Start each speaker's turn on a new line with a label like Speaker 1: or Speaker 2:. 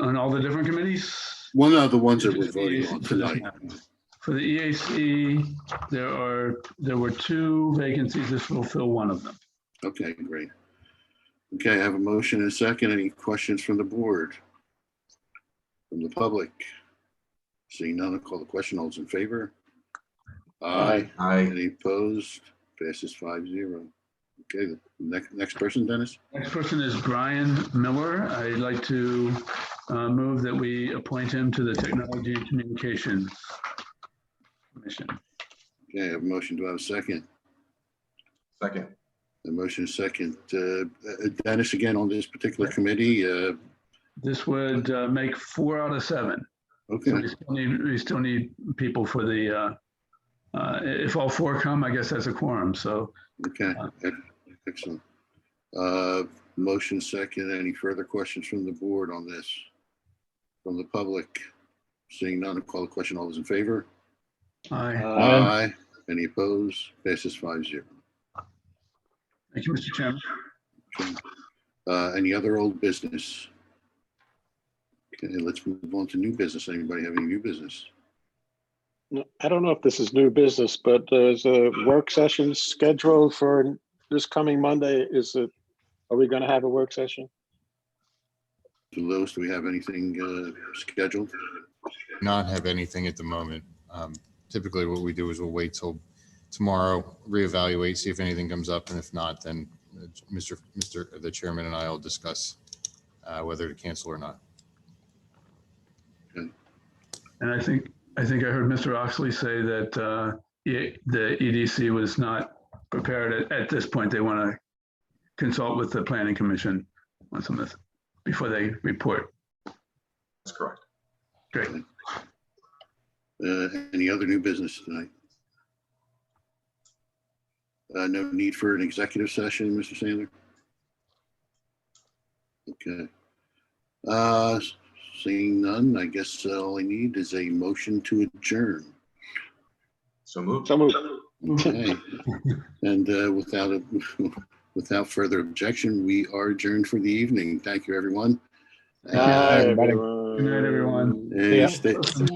Speaker 1: on all the different committees?
Speaker 2: One of the ones that we're voting on tonight.
Speaker 1: For the EAC, there are, there were two vacancies. This will fill one of them.
Speaker 2: Okay, great. Okay, I have a motion and a second. Any questions from the board? From the public? Seeing none, I'll call the question. All's in favor? Aye.
Speaker 3: Aye.
Speaker 2: Any opposed? Passes five zero. Okay, the next, next person, Dennis?
Speaker 1: Next person is Brian Miller. I'd like to uh, move that we appoint him to the Technology and Communications Commission.
Speaker 2: Okay, I have a motion. Do I have a second?
Speaker 3: Second.
Speaker 2: The motion is second. Uh, uh, Dennis, again, on this particular committee, uh,
Speaker 1: This would uh, make four out of seven.
Speaker 2: okay,
Speaker 1: So we still need, we still need people for the, uh, uh, if all four come, I guess that's a quorum. So
Speaker 2: okay, ec- excellent. Uh, motion second. Any further questions from the board on this? From the public? Seeing none, I'll call the question. All those in favor?
Speaker 1: I,
Speaker 2: Uh, Aye. Any opposed? Passes five zero.
Speaker 1: thank you, Mr. Chairman.
Speaker 2: Uh, any other old business? Okay, let's move on to new business. Anybody have any new business?
Speaker 4: No, I don't know if this is new business, but there's a work session scheduled for this coming Monday. Is it, are we gonna have a work session?
Speaker 2: Louis, do we have anything, uh, scheduled?
Speaker 5: not have anything at the moment. Um, Typically, what we do is we'll wait till tomorrow, reevaluate, see if anything comes up, and if not, then uh, Mr. Mr. the chairman and I will discuss uh, whether to cancel or not.
Speaker 1: And I think, I think I heard Mr. Oxley say that uh, E- the EDC was not prepared at, at this point. They want to consult with the planning commission on some of this before they report.
Speaker 3: That's correct.
Speaker 1: Great.
Speaker 2: Uh, any other new business tonight? Uh, no need for an executive session, Mr. Sandler? Okay. Uh, seeing none, I guess all I need is a motion to adjourn.
Speaker 3: So moved.
Speaker 4: So moved.
Speaker 2: Okay. And, uh, without, a without further objection, we are adjourned for the evening. Thank you, everyone.
Speaker 4: Bye,
Speaker 1: Good night, everyone.
Speaker 2: And stay-